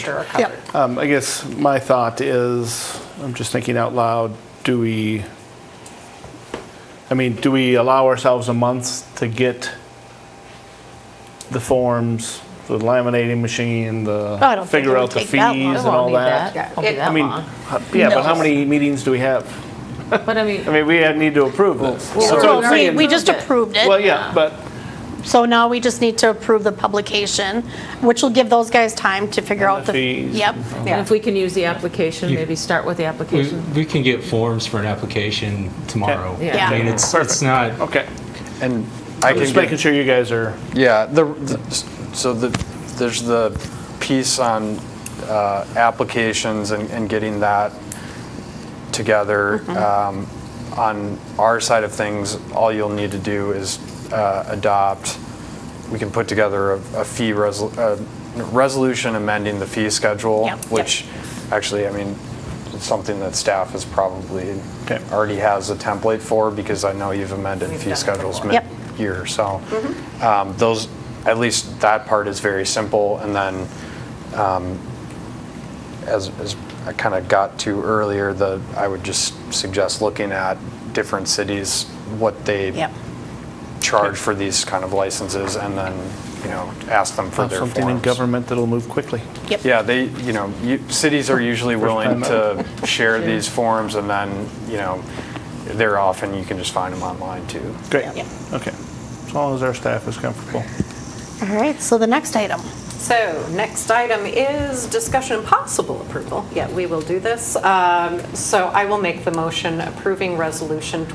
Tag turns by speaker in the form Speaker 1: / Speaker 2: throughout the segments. Speaker 1: sure are covered.
Speaker 2: Um, I guess my thought is, I'm just thinking out loud, do we, I mean, do we allow ourselves a month to get the forms, the laminating machine,
Speaker 3: Oh, I don't
Speaker 2: the,
Speaker 3: think
Speaker 2: figure
Speaker 3: it would
Speaker 2: out the
Speaker 3: take
Speaker 2: fees
Speaker 3: that
Speaker 2: and
Speaker 3: long.
Speaker 1: It won't
Speaker 2: all
Speaker 1: be
Speaker 2: that?
Speaker 1: that-
Speaker 3: Won't be
Speaker 1: it-
Speaker 2: I
Speaker 3: that Uh-uh.
Speaker 2: mean,
Speaker 3: long.
Speaker 2: h- yeah, but how
Speaker 1: No.
Speaker 2: many meetings do we have?
Speaker 1: But I mean,
Speaker 2: I mean, we need to approve this.
Speaker 1: Well,
Speaker 2: That's what I'm
Speaker 1: we're
Speaker 3: Well, we-
Speaker 2: saying.
Speaker 3: we just
Speaker 1: Approved it.
Speaker 3: approved
Speaker 2: Well,
Speaker 3: it,
Speaker 2: yeah, but,
Speaker 3: so now we just need to approve the publication, which will give those guys time to figure
Speaker 2: And
Speaker 3: out
Speaker 2: the
Speaker 3: the.
Speaker 2: fees.
Speaker 3: Yep,
Speaker 1: and if we can use the application,
Speaker 4: You-
Speaker 1: maybe start with the
Speaker 4: We
Speaker 1: application.
Speaker 4: we can get forms for an application tomorrow.
Speaker 1: Okay. Yeah.
Speaker 4: I mean, it's,
Speaker 2: Perfect.
Speaker 4: it's not,
Speaker 2: okay.
Speaker 5: And I
Speaker 2: I'm
Speaker 5: can
Speaker 2: just making
Speaker 5: get,
Speaker 2: sure you guys are,
Speaker 5: yeah, the, the- so the, there's the piece on uh, applications and and getting that together.
Speaker 2: Mm-hmm.
Speaker 5: Um, On our side of things, all you'll need to do is uh, adopt, we can put together a a fee, resol- a resolution amending the fee schedule,
Speaker 3: Yep. Yep.
Speaker 5: which, actually, I mean, it's something that staff is probably,
Speaker 2: Okay.
Speaker 5: already has a template for, because I know you've amended fee schedules
Speaker 3: Yep. Mm-hmm.
Speaker 5: mid-year, so um, those, at least that part is very simple, and then um, as, as I kind of got to earlier, the, I would just suggest looking at different cities, what they
Speaker 3: yep.
Speaker 5: charge for these kind of licenses, and then, you know, ask them for
Speaker 2: have
Speaker 5: their forms.
Speaker 2: something in government that'll move quickly.
Speaker 5: Yeah, they, you know, you- cities are usually
Speaker 2: time
Speaker 5: willing to share these forms, and then, you know, they're often, you can just find them online, too.
Speaker 2: Great,
Speaker 3: Yep.
Speaker 2: okay. As long as our staff is comfortable.
Speaker 3: All right, so the next item.
Speaker 6: So, next item is discussion and possible approval. Yeah, we will do this. Um, So I will make the motion approving Resolution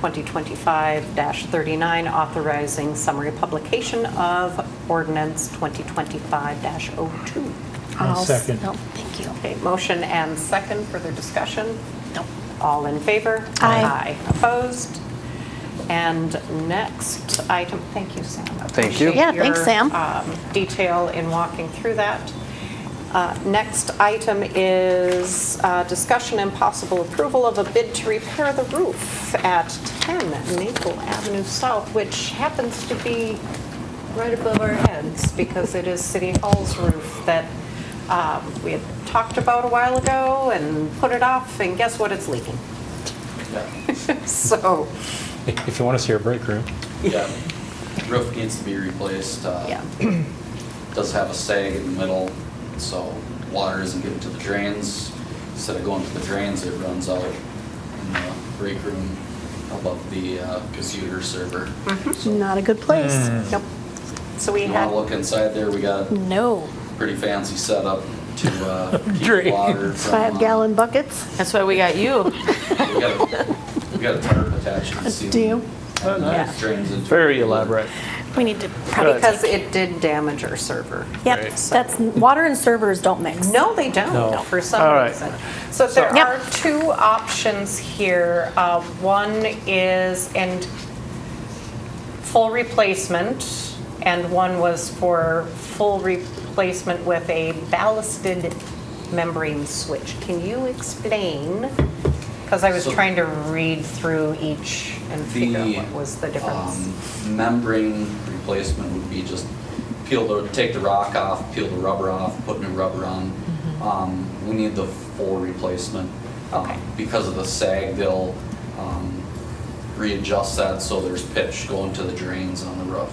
Speaker 6: 2025-39, authorizing summary publication of ordinance 2025-02.
Speaker 3: I'll second. Oh, No, thank you.
Speaker 6: Okay, motion and second, further discussion?
Speaker 3: No.
Speaker 6: All in favor?
Speaker 3: Aye.
Speaker 6: Opposed? And next item, thank you, Sam.
Speaker 5: Thank you.
Speaker 6: Appreciate
Speaker 3: Yeah, thanks,
Speaker 6: your,
Speaker 3: Sam.
Speaker 6: um, Detail in walking through that. Uh, Next item is uh, discussion and possible approval of a bid to repair the roof at 10 Maple Avenue South, which happens to be right above our heads because it is City Hall's roof that um, we had talked about a while ago and put it off, and guess what? It's leaking. So,
Speaker 4: if you want us here, break room.
Speaker 7: Yeah, roof needs to be replaced. uh,
Speaker 6: yeah.
Speaker 7: Does have a sag in the middle, so water isn't getting to the drains. Instead of going to the drains, it runs out in the break room above the uh, computer server.
Speaker 3: Mm-hmm.
Speaker 7: So
Speaker 3: Not a good place.
Speaker 2: Hmm.
Speaker 6: Nope. So we
Speaker 7: If you
Speaker 6: had.
Speaker 7: want to look inside there, we got
Speaker 3: Mm.
Speaker 7: a
Speaker 3: No.
Speaker 7: pretty fancy setup to uh, keep water from.
Speaker 3: Five
Speaker 7: uh,
Speaker 3: gallon buckets?
Speaker 1: That's why we got you.
Speaker 7: We got a- we got a tarp attached to the ceiling.
Speaker 3: Do you?
Speaker 7: And
Speaker 6: Yeah.
Speaker 7: that drains into.
Speaker 2: Very elaborate.
Speaker 3: We need to probably.
Speaker 6: Because it did damage our server.
Speaker 3: Yep, that's, water and servers don't mix.
Speaker 6: No, they
Speaker 4: No.
Speaker 6: don't, for
Speaker 2: All
Speaker 6: some
Speaker 2: right.
Speaker 6: reason. So there
Speaker 3: Yep.
Speaker 6: are two options here. Uh, One is in full replacement, and one was for full replacement with a ballasted membrane switch. Can you explain? Because I was
Speaker 7: So-
Speaker 6: trying to read through each and figure out
Speaker 7: The,
Speaker 6: what was the difference.
Speaker 7: um, membrane replacement would be just peel the, take the rock off, peel the rubber off, put new rubber on.
Speaker 1: Mm-hmm.
Speaker 7: Um, we need the full replacement. Um,
Speaker 6: Okay.
Speaker 7: Because of the sag, they'll, um, readjust that so there's pitch going to the drains on the roof.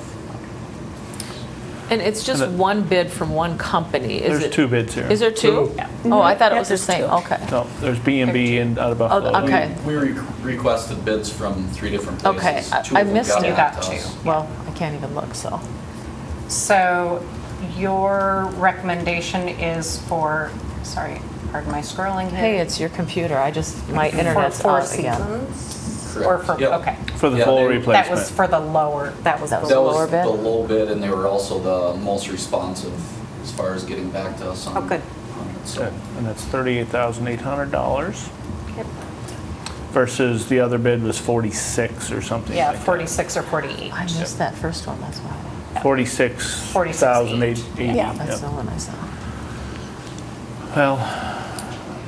Speaker 1: And it's just
Speaker 2: And the-
Speaker 1: one bid from one company, is it?
Speaker 2: There's two bids here.
Speaker 1: Is there two? Oh, I thought it was the same, okay.
Speaker 2: No, there's B and B and out of Buffalo.
Speaker 1: Oh, okay.
Speaker 7: We re- requested bids from three different
Speaker 1: Okay,
Speaker 7: places.
Speaker 1: I-
Speaker 7: Two of
Speaker 1: I
Speaker 7: them
Speaker 1: missed
Speaker 7: got
Speaker 1: you.
Speaker 7: back
Speaker 6: Got
Speaker 7: to
Speaker 6: you.
Speaker 7: us.
Speaker 1: Well, I can't even look, so.
Speaker 6: So your recommendation is for, sorry, pardon my scrolling here.
Speaker 1: Hey, it's your computer, I just, my
Speaker 6: For
Speaker 1: internet's
Speaker 6: Four
Speaker 1: out again.
Speaker 6: Seasons?
Speaker 7: Correct.
Speaker 6: Or for,
Speaker 7: Yep.
Speaker 6: okay.
Speaker 2: For the
Speaker 7: Yeah,
Speaker 2: full
Speaker 7: they-
Speaker 2: replacement.
Speaker 6: That was for the lower, that was the
Speaker 1: That was
Speaker 7: That
Speaker 6: lower.
Speaker 7: was
Speaker 1: lower bid?
Speaker 7: the low bid, and they were also the most responsive as far as getting back to us on.
Speaker 6: Oh, good.
Speaker 7: on it, so.
Speaker 2: Okay, And that's thirty-eight thousand eight hundred dollars
Speaker 6: Yep.
Speaker 2: versus the other bid was forty-six or something
Speaker 6: Yeah,
Speaker 2: like that.
Speaker 6: 46 or 48.
Speaker 1: I missed that first one, that's why.
Speaker 2: Forty-six
Speaker 6: 46,880.
Speaker 3: Yeah.
Speaker 1: That's the
Speaker 2: Yep.
Speaker 1: one I saw.
Speaker 2: Well,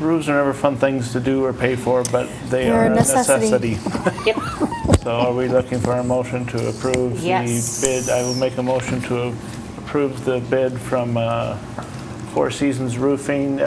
Speaker 2: roofs are never fun things to do or pay for, but they
Speaker 3: They're
Speaker 2: are
Speaker 3: a
Speaker 2: a necessity.
Speaker 3: necessity.
Speaker 6: Yep.
Speaker 2: So are we looking for a motion to approve the
Speaker 6: Yes.
Speaker 2: bid? I will make a motion to approve the bid from uh, Four Seasons Roofing